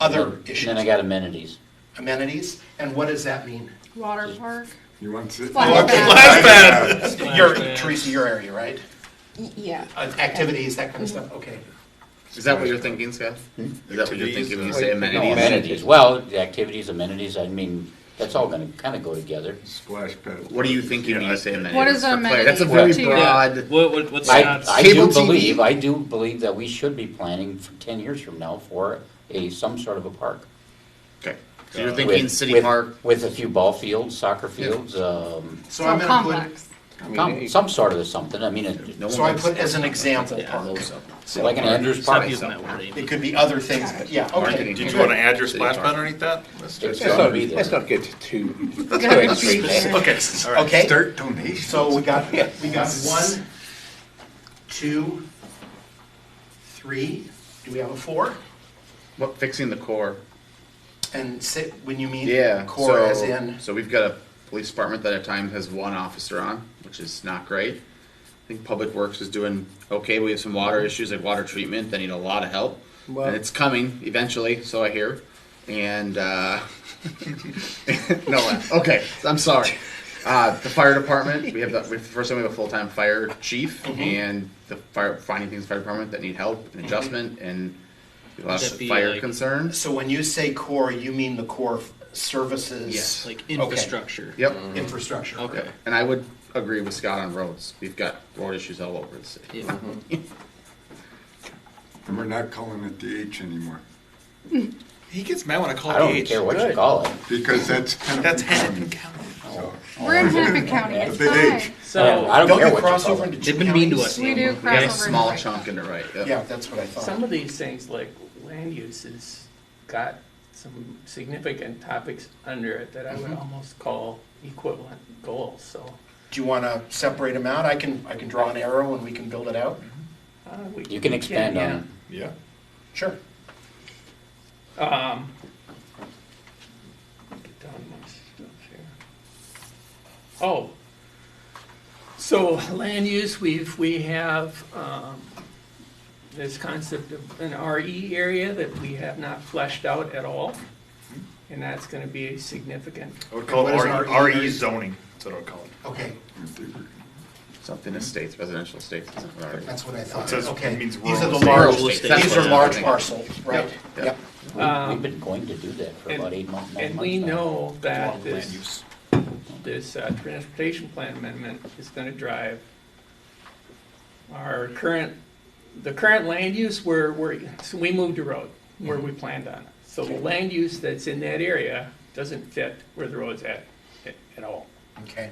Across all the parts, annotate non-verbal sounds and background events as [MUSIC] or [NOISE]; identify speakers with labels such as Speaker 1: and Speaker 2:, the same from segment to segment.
Speaker 1: other
Speaker 2: And
Speaker 1: issues.
Speaker 2: Then I got amenities.
Speaker 1: Amenities, and what does that mean?
Speaker 3: Water park?
Speaker 4: You want to?
Speaker 3: Flash
Speaker 1: Okay.
Speaker 3: back.
Speaker 1: Your, Teresa, your area, right?
Speaker 3: Y- Yeah.
Speaker 1: Uh, Activities, that kind of stuff, okay.
Speaker 5: Is that what you're thinking, Scott? Is that what you're thinking when you say amenities?
Speaker 2: Amenities, well, the activities, amenities, I mean, that's all gonna kinda go together.
Speaker 4: Splash pad.
Speaker 5: What are you thinking when you say amenities?
Speaker 3: What is
Speaker 5: for
Speaker 3: an
Speaker 5: Claire? That's a very
Speaker 3: amenity to you?
Speaker 6: Yeah,
Speaker 5: broad.
Speaker 6: what, what, what's
Speaker 2: I,
Speaker 6: not,
Speaker 2: I do
Speaker 5: Cable TV?
Speaker 2: believe, I do believe that we should be planning for ten years from now for a, some sort of a park.
Speaker 5: Okay. So you're
Speaker 2: With-
Speaker 5: thinking city
Speaker 2: with-
Speaker 5: park.
Speaker 2: With a few ball fields, soccer fields, um,
Speaker 1: So I'm gonna
Speaker 3: So complex.
Speaker 2: some, some sort of something, I mean,
Speaker 5: No
Speaker 2: it-
Speaker 1: put,
Speaker 5: one
Speaker 1: so I
Speaker 5: likes
Speaker 1: put as an example
Speaker 6: Yeah,
Speaker 1: park.
Speaker 5: those up.
Speaker 1: So
Speaker 2: like an Andrews
Speaker 6: stop
Speaker 2: Park.
Speaker 6: using that word, Amy.
Speaker 1: It could be other things, but yeah, okay.
Speaker 5: Marketing.
Speaker 7: Did you want to add your
Speaker 5: City
Speaker 7: splash
Speaker 5: park.
Speaker 7: pad underneath that? Let's do it.
Speaker 2: It's gonna be there.
Speaker 8: Let's not get too,
Speaker 7: Okay, all right.
Speaker 1: Okay,
Speaker 4: Dirt donations.
Speaker 1: so we got, we got one, two, three, do we have a four?
Speaker 5: What fixing the core?
Speaker 1: And sit, when you mean
Speaker 5: Yeah.
Speaker 1: core
Speaker 5: so,
Speaker 1: as in,
Speaker 5: So we've got a police department that at times has one officer on, which is not great. I think Public Works is doing okay. We have some water
Speaker 6: Mm-hmm.
Speaker 5: issues like water treatment that need a lot of help,
Speaker 8: Well-
Speaker 5: and it's coming eventually, so I hear. And uh, [LAUGHS] no, okay, I'm sorry. Uh, the fire department, we have the, we- first time we have a full-time fire chief
Speaker 6: Mm-hmm.
Speaker 5: and the fire, finding things fire department that need help and adjustment and a lot
Speaker 6: Would that
Speaker 5: of
Speaker 6: be
Speaker 5: fire
Speaker 6: like-
Speaker 5: concerns.
Speaker 1: so when you say core, you mean the core f- services?
Speaker 5: Yes, Mm-hmm.
Speaker 6: Like
Speaker 1: Okay.
Speaker 6: infrastructure.
Speaker 5: Yep.
Speaker 1: Infrastructure.
Speaker 6: Okay.
Speaker 5: And I would agree with Scott on roads. We've got road issues all over the city.
Speaker 6: Yeah.
Speaker 4: And we're not calling it the H anymore,
Speaker 7: He gets mad when I call
Speaker 2: I
Speaker 7: it
Speaker 2: don't
Speaker 7: H.
Speaker 2: care what you call it.
Speaker 4: because that's kind of.
Speaker 7: That's Hennepin County.
Speaker 3: We're in Hennepin County, it's
Speaker 4: The big H.
Speaker 3: fine.
Speaker 6: So,
Speaker 2: I don't
Speaker 1: Don't
Speaker 2: care
Speaker 1: you
Speaker 2: what
Speaker 1: cross
Speaker 2: you
Speaker 1: over
Speaker 2: call
Speaker 1: into
Speaker 2: it.
Speaker 1: two
Speaker 6: They've been mean to
Speaker 1: counties?
Speaker 6: us.
Speaker 3: We
Speaker 6: Amy.
Speaker 3: do
Speaker 5: We got a
Speaker 3: crossover.
Speaker 5: small chunk in the right. uh, yep.
Speaker 1: Yeah, that's what I thought.
Speaker 9: Some of these things like land use has got some significant topics under it that I
Speaker 2: Mm-hmm.
Speaker 9: would almost call equivalent goals, so.
Speaker 1: Do you want to separate them out? I can, I can draw an arrow and we can build it out.
Speaker 9: uh, we-
Speaker 2: You can expand on
Speaker 9: yeah.
Speaker 2: it.
Speaker 4: Yeah.
Speaker 1: Sure.
Speaker 9: Um, get down to my stuff here. Oh, so land use, we've, we have, um, this concept of an RE area that we have not fleshed out at all. And that's gonna be a significant,
Speaker 7: I would call it
Speaker 1: What is
Speaker 7: R-
Speaker 1: RE?
Speaker 7: RE zoning. That's what I would call it.
Speaker 1: Okay,
Speaker 5: Something estates, residential estates. is what I already-
Speaker 1: that's what I thought.
Speaker 7: It says-
Speaker 1: Okay.
Speaker 7: it means
Speaker 1: These are
Speaker 7: rural
Speaker 1: the large,
Speaker 5: Rural
Speaker 6: estate.
Speaker 1: these
Speaker 5: That's what
Speaker 1: are
Speaker 5: I'm
Speaker 1: large
Speaker 5: thinking.
Speaker 1: parcel, right?
Speaker 5: Yep.
Speaker 1: Yep.
Speaker 2: We- We've been going to do that for
Speaker 9: and-
Speaker 2: about eight months, nine
Speaker 9: Um, and
Speaker 2: months
Speaker 9: we
Speaker 2: now.
Speaker 9: know that
Speaker 7: Land
Speaker 9: this.
Speaker 7: use.
Speaker 9: this uh, transportation plan amendment is gonna drive our current, the current land use where, where, so we moved a road where we planned on it. So the land use that's in that area doesn't fit where the road's at, at- at all.
Speaker 1: Okay.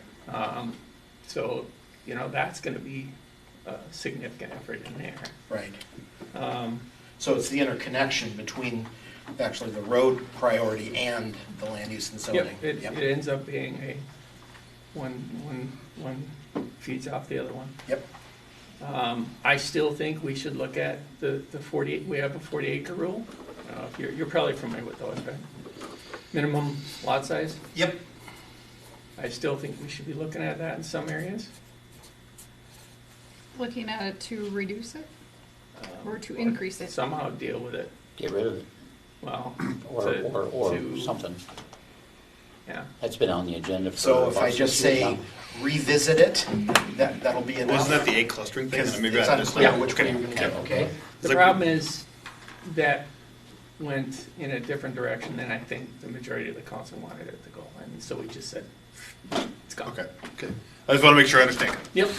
Speaker 9: So, you know, that's gonna be a significant effort in there.
Speaker 1: Right. So it's the interconnection between actually the road priority and the land use and zoning.
Speaker 9: Yep, It,
Speaker 1: Yep.
Speaker 9: it ends up being a, one, one, one feeds off the other one.
Speaker 1: Yep,
Speaker 9: Um, I still think we should look at the, the forty, we have a forty acre rule. Uh, if You're, you're probably familiar with those, right? Minimum lot size.
Speaker 1: yep,
Speaker 9: I still think we should be looking at that in some areas.
Speaker 3: Looking at it to reduce it or to increase it.
Speaker 9: Somehow deal with it,
Speaker 2: Get rid of it,
Speaker 9: well.
Speaker 2: or,
Speaker 9: to-
Speaker 2: or, or
Speaker 9: to-
Speaker 2: something.
Speaker 9: Yeah,
Speaker 2: That's been on the agenda for.
Speaker 1: so if
Speaker 2: about
Speaker 1: I just
Speaker 2: six years
Speaker 1: say
Speaker 2: now.
Speaker 1: revisit it, that, that'll be enough.
Speaker 7: Wasn't that the A clustering thing?
Speaker 1: Because
Speaker 7: Maybe
Speaker 1: it's
Speaker 7: I just-
Speaker 1: unclear
Speaker 7: Yeah,
Speaker 1: which
Speaker 7: okay.
Speaker 1: one you're gonna get, okay?
Speaker 9: the
Speaker 7: like-
Speaker 9: problem is that went in a different direction than I think the majority of the council wanted it to go, and so we just said, it's gone.
Speaker 7: Okay, good. I just want to make sure I understand.
Speaker 9: Yep,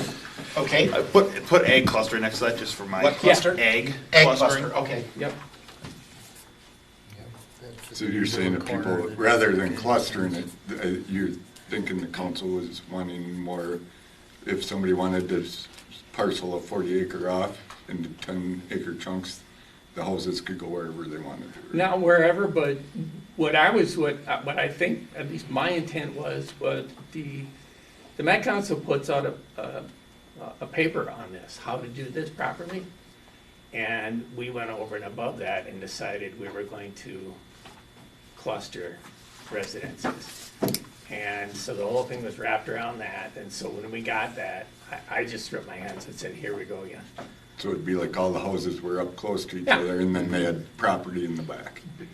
Speaker 1: Okay,
Speaker 7: I put, put egg clustering next to that just for my.
Speaker 1: What cluster?
Speaker 7: Egg.
Speaker 1: egg
Speaker 7: clustering.
Speaker 1: cluster, okay.
Speaker 9: yep,
Speaker 4: So you're saying that people, rather than clustering it, uh, you're thinking the council was wanting more, if somebody wanted to s- parcel a forty acre off into ten acre chunks, the houses could go wherever they wanted. to.
Speaker 9: Not wherever, but what I was, what, what I think, at least my intent was, was the, the Met Council puts out a, a, a paper on this, how to do this properly. And we went over and above that and decided we were going to cluster residences. And so the whole thing was wrapped around that, and so when we got that, I, I just threw up my hands and said, here we go again.
Speaker 4: So it'd be like all the houses were up close to each
Speaker 9: Yeah.
Speaker 4: other and then they had property in the back.